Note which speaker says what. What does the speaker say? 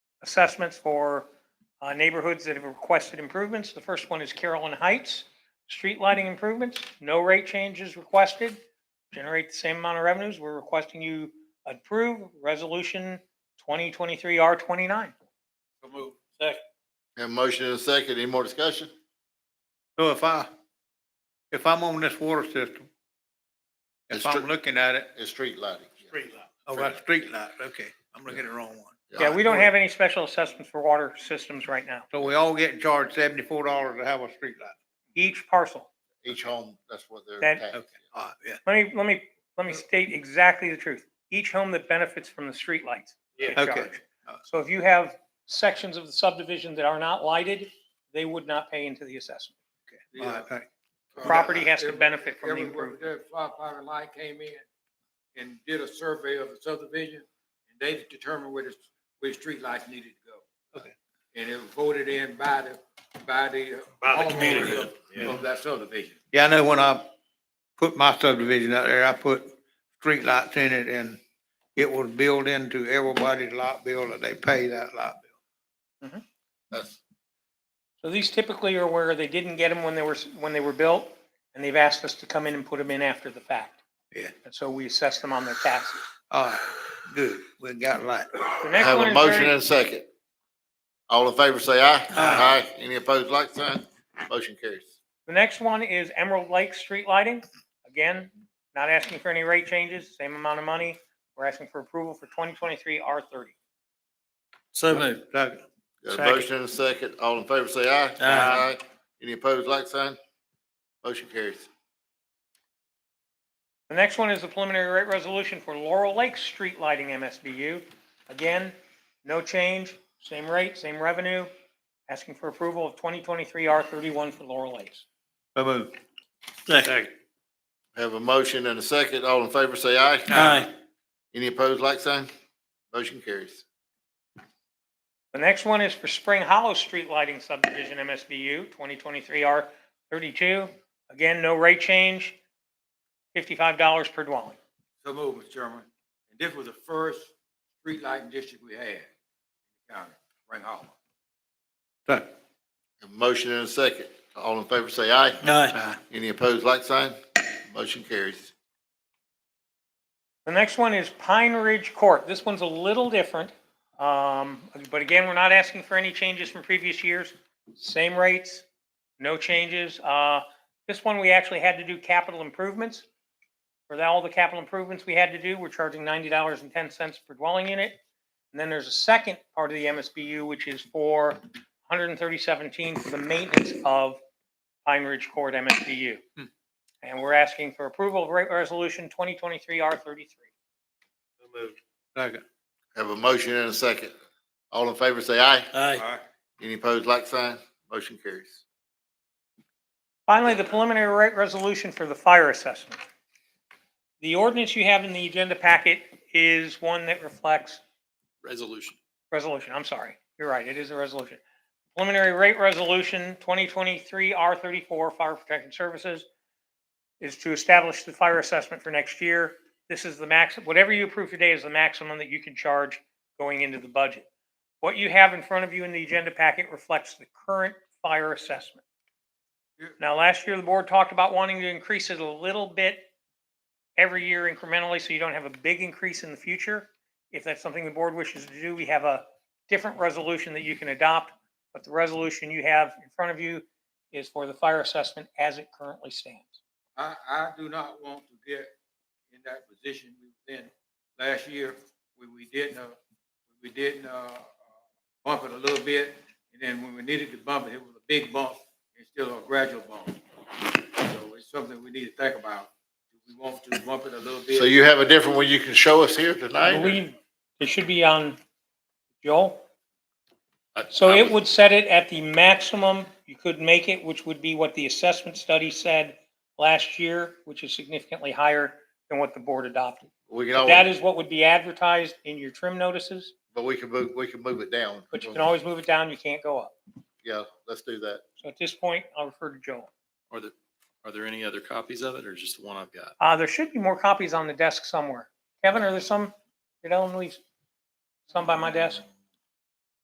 Speaker 1: assessments for uh, neighborhoods that have requested improvements. The first one is Carolyn Heights, street lighting improvements, no rate changes requested, generate the same amount of revenues. We're requesting you approve Resolution 2023 R29.
Speaker 2: So move. Second.
Speaker 3: Have a motion and a second. Any more discussion?
Speaker 4: So if I, if I'm on this water system,
Speaker 3: It's
Speaker 4: if
Speaker 3: tr-
Speaker 4: I'm looking at it,
Speaker 3: It's street lighting.
Speaker 2: Street light.
Speaker 4: oh, that's street light, okay, I'm looking at the wrong one.
Speaker 1: Yeah, we don't have any special assessments for water systems right now.
Speaker 4: So we all getting charged seventy-four dollars to have a street light.
Speaker 1: Each parcel.
Speaker 3: Each home, that's what they're
Speaker 1: That-
Speaker 3: taxed.
Speaker 4: Okay, all right, yeah,
Speaker 1: Let me, let me, let me state exactly the truth. Each home that benefits from the streetlights. gets
Speaker 4: Yeah. Okay.
Speaker 1: charged. So if you have sections of the subdivision that are not lighted, they would not pay into the assessment.
Speaker 4: all right, thank-
Speaker 1: Uh, Property has to benefit from the
Speaker 2: Everywhere
Speaker 1: improvement.
Speaker 2: that firefighter light came in and did a survey of the subdivision, and they determined where the, where streetlights needed to go.
Speaker 4: Okay.
Speaker 2: And it was voted in by the, by the. By the community. Of that subdivision.
Speaker 4: Yeah, I know when I put my subdivision out there, I put street lights in it and it was built into everybody's light bill that they pay that light bill.
Speaker 3: That's,
Speaker 1: So these typically are where they didn't get them when they were, when they were built, and they've asked us to come in and put them in after the fact.
Speaker 4: Yeah.
Speaker 1: And so we assess them on their taxes.
Speaker 4: All right, good, we got light.
Speaker 1: The
Speaker 3: I
Speaker 1: next
Speaker 3: have
Speaker 1: one
Speaker 3: a
Speaker 1: is
Speaker 3: motion
Speaker 1: very-
Speaker 3: and a second. All in favor, say aye. Aye. Any opposed, like sign. Motion carries.
Speaker 1: The next one is Emerald Lake Street Lighting. Again, not asking for any rate changes, same amount of money. We're asking for approval for 2023 R30.
Speaker 5: So moved.
Speaker 4: Second.
Speaker 3: Got a
Speaker 1: Second.
Speaker 3: motion and a second. All in favor, say aye.
Speaker 5: Aye.
Speaker 3: Any opposed, like sign. Motion carries.
Speaker 1: The next one is the preliminary rate resolution for Laurel Lake Street Lighting MSBU. Again, no change, same rate, same revenue. Asking for approval of 2023 R31 for Laurel Lakes.
Speaker 4: So moved.
Speaker 5: Second.
Speaker 3: Have a motion and a second. All in favor, say aye.
Speaker 5: Aye.
Speaker 3: Any opposed, like sign. Motion carries.
Speaker 1: The next one is for Spring Hollow Street Lighting Subdivision MSBU, 2023 R32. Again, no rate change, $55 per dwelling.
Speaker 2: So move, Mr. Chairman. And this was the first street lighting district we had in the county, Ring Hollow.
Speaker 4: Second.
Speaker 3: Have a Motion and a second. All in favor, say aye.
Speaker 5: Aye.
Speaker 3: Any opposed, like sign. Motion carries.
Speaker 1: The next one is Pine Ridge Court. This one's a little different. Um, but again, we're not asking for any changes from previous years. Same rates, no changes. Uh, this one, we actually had to do capital improvements. For that, all the capital improvements we had to do, we're charging ninety dollars and ten cents per dwelling unit. And then there's a second part of the MSBU, which is for one hundred and thirty seventeen for the maintenance of Pine Ridge Court MSBU. And we're asking for approval of rate resolution twenty twenty-three R thirty-three.
Speaker 4: Second.
Speaker 3: Have a motion and a second. All in favor, say aye.
Speaker 5: Aye.
Speaker 3: Any opposed, like sign. Motion carries.
Speaker 1: Finally, the preliminary rate resolution for the fire assessment. The ordinance you have in the agenda packet is one that reflects
Speaker 5: Resolution.
Speaker 1: resolution, I'm sorry. You're right, it is a resolution. Preliminary rate resolution 2023 R34 Fire Protection Services is to establish the fire assessment for next year. This is the max, whatever you approve today is the maximum that you can charge going into the budget. What you have in front of you in the agenda packet reflects the current fire assessment. Now, last year, the board talked about wanting to increase it a little bit every year incrementally, so you don't have a big increase in the future. If that's something the board wishes to do, we have a different resolution that you can adopt, but the resolution you have in front of you is for the fire assessment as it currently stands.
Speaker 2: I, I do not want to get in that position we was in last year, where we didn't, uh, we didn't, uh, bump it a little bit, and then when we needed to bump it, it was a big bump, and still a gradual bump. So it's something we need to think about, if we want to bump it a little bit.
Speaker 3: So you have a different one you can show us here
Speaker 1: I
Speaker 3: tonight? or-
Speaker 1: believe it should be on Joel.
Speaker 3: I-
Speaker 1: So
Speaker 3: I
Speaker 1: it
Speaker 3: was-
Speaker 1: would set it at the maximum you could make it, which would be what the assessment study said last year, which is significantly higher than what the board adopted.
Speaker 3: We can
Speaker 1: That
Speaker 3: always,
Speaker 1: is what would be advertised in your trim notices,
Speaker 3: but we can move, we can move it down.
Speaker 1: but you can always move it down, you can't go up.
Speaker 3: Yeah, let's do that.
Speaker 1: So at this point, I'll refer to Joel.
Speaker 5: Are there, are there any other copies of it or just the one I've got?
Speaker 1: Uh, there should be more copies on the desk somewhere. Kevin, are there some, did Ellen leave some by my desk?